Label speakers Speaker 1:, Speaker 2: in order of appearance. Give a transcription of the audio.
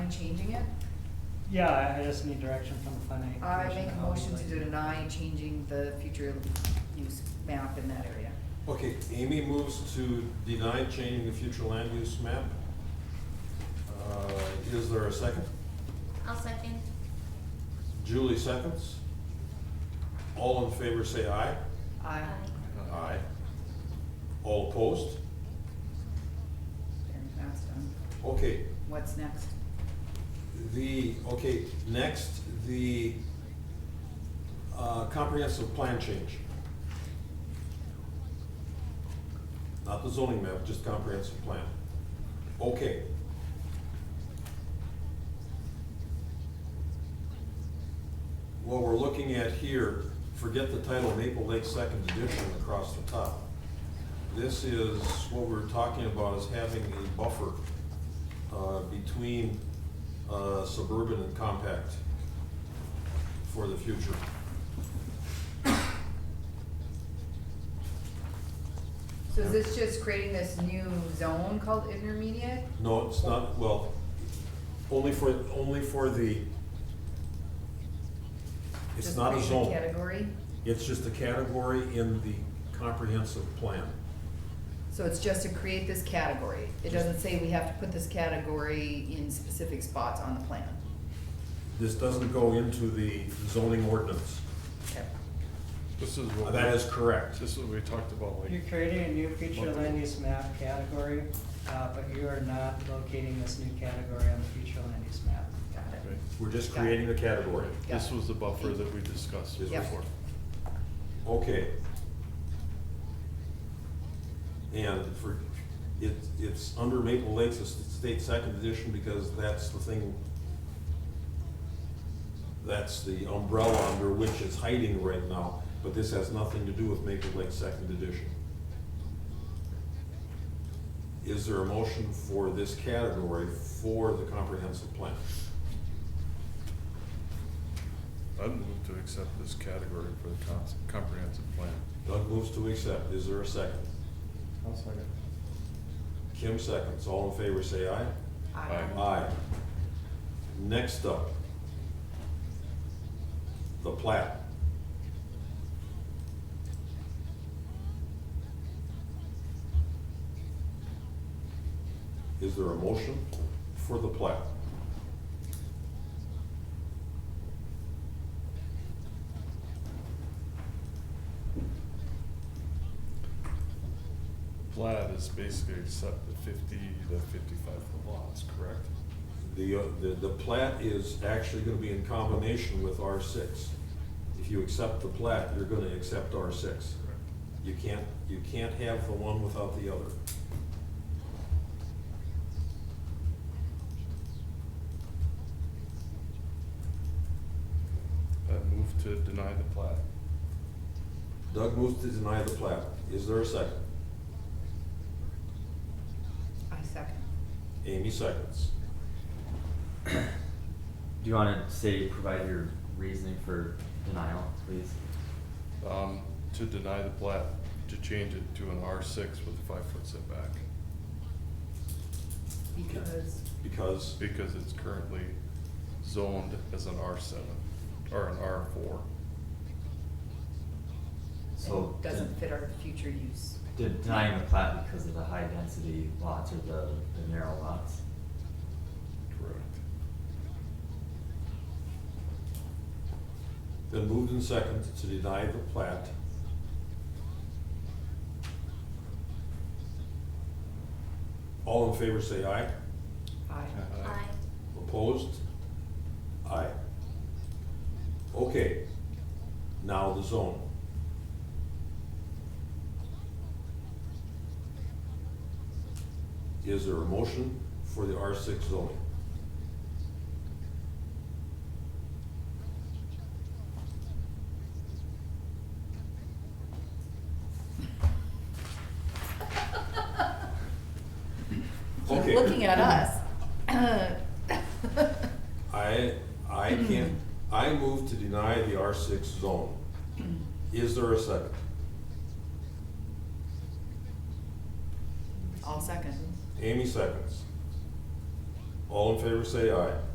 Speaker 1: it?
Speaker 2: Yeah, I- I just need direction from the planning.
Speaker 1: I
Speaker 2: commission
Speaker 1: make a
Speaker 2: how we'd
Speaker 1: motion to
Speaker 2: like do it.
Speaker 1: deny changing the future use map in that area.
Speaker 3: Okay, Amy moves to deny changing the future land use map. Uh, Is there a second?
Speaker 4: I'll second.
Speaker 3: Julie seconds. All in favor say aye.
Speaker 1: I,
Speaker 3: Aye. All opposed?
Speaker 1: there, that's done.
Speaker 3: Okay,
Speaker 1: What's next?
Speaker 3: the, okay, next, the uh, comprehensive plan change. Not the zoning map, just comprehensive plan. Okay. What we're looking at here, forget the title Maple Lake Second Edition across the top. This is, what we're talking about is having a buffer uh, between uh, suburban and compact for the future.
Speaker 1: So is this just creating this new zone called intermediate?
Speaker 3: No, it's not, well, only for, only for the, it's
Speaker 1: Just
Speaker 3: not a
Speaker 1: create
Speaker 3: zone.
Speaker 1: Category?
Speaker 3: It's just a category in the comprehensive plan.
Speaker 1: So it's just to create this category. It doesn't say we have to put this category in specific spots on the plan.
Speaker 3: This doesn't go into the zoning ordinance.
Speaker 1: Okay.
Speaker 5: This is what,
Speaker 3: That is correct.
Speaker 5: this is what we talked about,
Speaker 2: You're
Speaker 5: like,
Speaker 2: creating a new future land use map category, uh, but you are not locating this new category on the future land use map.
Speaker 1: Got
Speaker 5: right,
Speaker 1: it.
Speaker 3: We're just creating the category.
Speaker 1: Got
Speaker 5: this
Speaker 1: it.
Speaker 5: was the buffer that we discussed
Speaker 3: This
Speaker 1: Yep.
Speaker 5: before.
Speaker 3: Okay. And for, it, it's under Maple Lakes, it's the state second edition, because that's the thing, that's the umbrella under which it's hiding right now, but this has nothing to do with Maple Lakes second edition. Is there a motion for this category for the comprehensive plan?
Speaker 5: I'd move to accept this category for the cons- comprehensive plan.
Speaker 3: Doug moves to accept, is there a second?
Speaker 5: I'll second.
Speaker 3: Kim seconds, all in favor say aye.
Speaker 5: Aye.
Speaker 3: Aye. Next up, the plat. Is there a motion for the plat?
Speaker 5: Plat is basically accept the fifty to fifty-five foot lots, correct?
Speaker 3: The, uh, the, the plat is actually gonna be in combination with R six. If you accept the plat, you're gonna accept R six.
Speaker 5: Correct.
Speaker 3: You can't, you can't have the one without the other.
Speaker 5: I move to deny the plat.
Speaker 3: Doug moves to deny the plat. Is there a second?
Speaker 1: I second.
Speaker 3: Amy seconds.
Speaker 6: Do you want to say, provide your reasoning for denial, please?
Speaker 5: Um, to deny the plat, to change it to an R six with a five-foot setback,
Speaker 1: Because,
Speaker 3: Because,
Speaker 5: because it's currently zoned as an R seven, or an R four.
Speaker 6: So.
Speaker 1: it doesn't fit our future use.
Speaker 6: de- Denying the plat because of the high density lots or the, the narrow lots?
Speaker 5: Correct.
Speaker 3: been moved and second to deny the plat. All in favor say aye.
Speaker 1: Aye.
Speaker 5: Aye.
Speaker 3: Opposed? Aye. Okay, now the zone. Is there a motion for the R six zoning?
Speaker 1: You're
Speaker 3: Okay.
Speaker 1: Looking at us.
Speaker 3: I, I can't, I move to deny the R six zone. Is there a second?
Speaker 1: I'll second.
Speaker 3: Amy seconds. All in favor say aye.